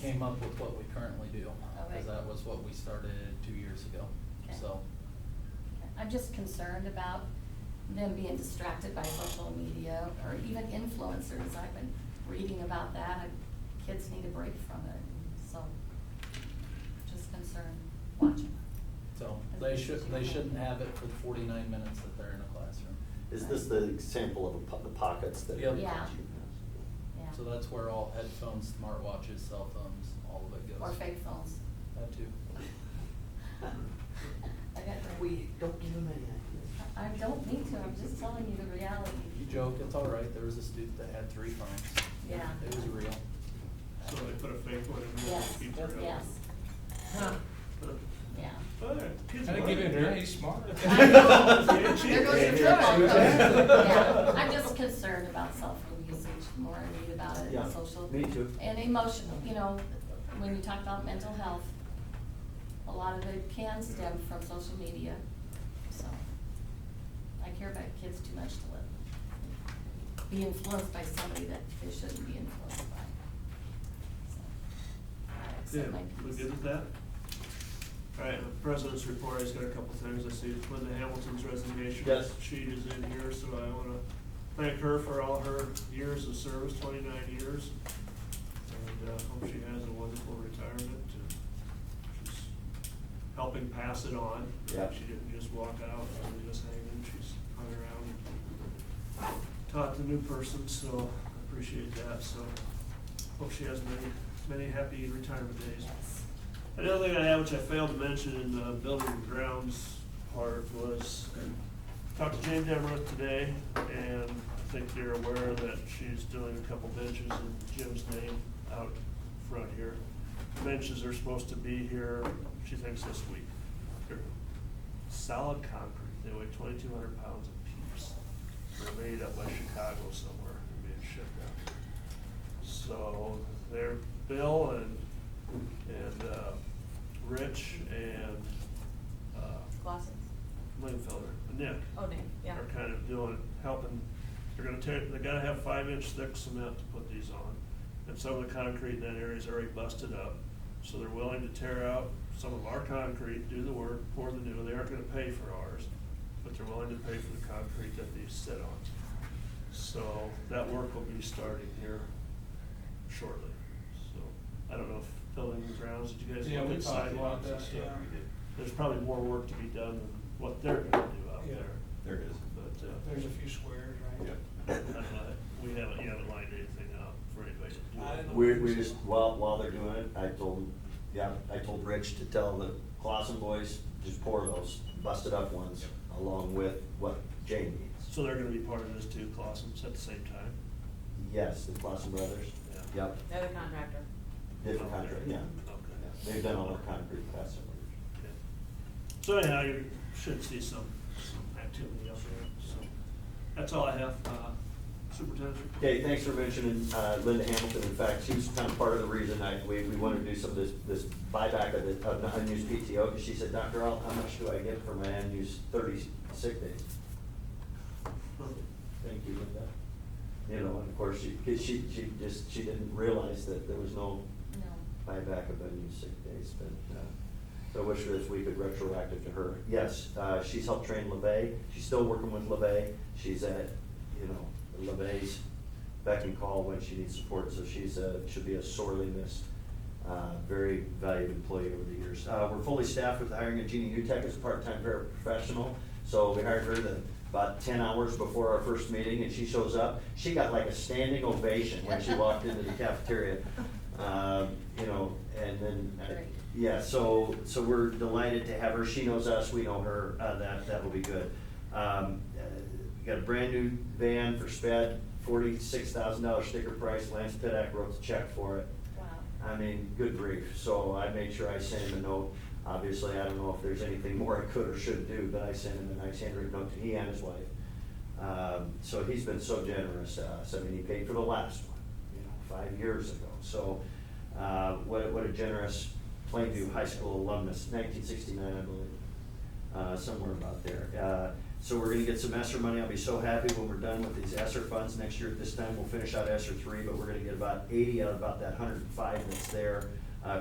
came up with what we currently do, Okay. because that was what we started two years ago, Okay. so. I'm just concerned about them being distracted by social media or even influencers. I've been reading about that. and Kids need a break from it, so just concerned watching. So As they much as should, you they can. shouldn't have it for the forty-nine minutes that they're in a classroom. Is this the example of a po- the pockets that? Yep. Yeah. Yeah. So that's where all headphones, smartwatches, cell phones, all of it goes. Or fake phones. That too. I got- Uh-uh. We don't give them any I don't need to, I'm just telling you the reality. You joke, it's all right, there was a student that had three phones. Yeah. It was real. So they put a fake one in there Yes, to keep their head. yes, yeah. Oh, yeah, kids Gotta are give it learning. very smart. I know. Yeah, she- There goes your Yeah. football coach. Yeah, Yeah. I'm just concerned about cell phone usage, the more I read about it, Yeah, and social. me too. And emotional, you know, when you talk about mental health, a lot of it can stem from social media, so. I care about kids too much to let, be influenced by somebody that they shouldn't be influenced by. So, I accept Good, my we piece. good with that? All right, the president's report, he's got a couple things, I see Linda Hamilton's resignation. Yes. Sheet is in here, so I wanna thank her for all her years of service, twenty-nine years. And, uh, hope she has a wonderful retirement, and she's helping pass it on. Yeah. She didn't just walk out, she was just hanging, she's hung around, and taught the new person, so I appreciate that, so hope she has many, many happy retirement days. Yes. Another thing I had, which I failed to mention in the building and grounds part, was talked to Jane Demereth today, and I think you're aware that she's doing a couple benches in Jim's name out front here. Benches are supposed to be here, she thinks this week. They're solid concrete, they weigh twenty-two hundred pounds apiece. They're made up by Chicago somewhere, and being shipped out. So they're Bill and, and, uh, Rich and, uh, Glasses? Langfelder, Nick. Oh, Nick, yeah. Are kind of doing, helping, they're gonna tear, they gotta have five inch thick cement to put these on. And some of the concrete in that area is already busted up, so they're willing to tear out some of our concrete, do the work, pour the new, they aren't gonna pay for ours, but they're willing to pay for the concrete that these sit on. So that work will be starting here shortly, so, I don't know if building and grounds, did you guys Yeah, look we at talked about sidewalks and that, stuff? yeah. There's probably more work to be done than what they're gonna do out Yeah. there. There is. But, uh. There's a few squares, right? I don't know, we haven't, you haven't lined anything up for anybody to do. I it. don't We, we just, while, while they're doing it, I told, yeah, I told Rich to tell the Clausen boys, just pour those busted up ones along with what Jane needs. So they're gonna be part of this too, Clausen's at the same time? Yes, the Clausen brothers, Yeah. yep, They're the contractor. different contract, yeah. Okay. Yeah, They've done all our concrete class Okay. So anyhow, you should see some, some activity out there, so, that's all I have, uh, superintendent's report. Okay, thanks for mentioning uh, Linda Hamilton. In fact, she was kind of part of the reason I, we, we wanted to do some of this, this buyback of the, of the unused PTO, because she said, Dr. Al, how much do I get for my unused thirty sick days? Thank you, Linda. You know, and of course, she, 'cause she, she just, she didn't realize that there was no No. buyback of unused sick days, but, uh, so I wish that we could retroactive to her. Yes, uh, she's helped train LeVey, she's still working with LeVey, she's at, you know, LeVey's beck and call when she needs support, so she's a, should be a sorely missed, uh, very valued employee over the years. Uh, we're fully staffed with hiring a Jeannie Hutek as a part-time paraprofessional, so we hired her the, about ten hours before our first meeting, and she shows up, she got like a standing ovation when she walked into the cafeteria. Um, you know, and then, uh, Great. yeah, so, so we're delighted to have her, she knows us, we know her, uh, that, that will be good. Um, uh, we got a brand new van for Sped, forty-six thousand dollar sticker price, Lance Pittack wrote the check for it. Wow. I mean, good grief, so I made sure I sent him a note, obviously, I don't know if there's anything more I could or should do, but I sent him a nice handwritten note to he and his wife. Um, so he's been so generous to us, I mean, he paid for the last one, you know, five years ago, so, uh, what, what a generous Plainview High School alumnus, nineteen sixty-nine, I believe, uh, somewhere about there. Uh, So we're gonna get some ESSER money. I'll be so happy when we're done with these ESSER funds. Next year at this time, we'll finish out ESSER three, but we're gonna get about eighty out of about that hundred and five that's there. Uh,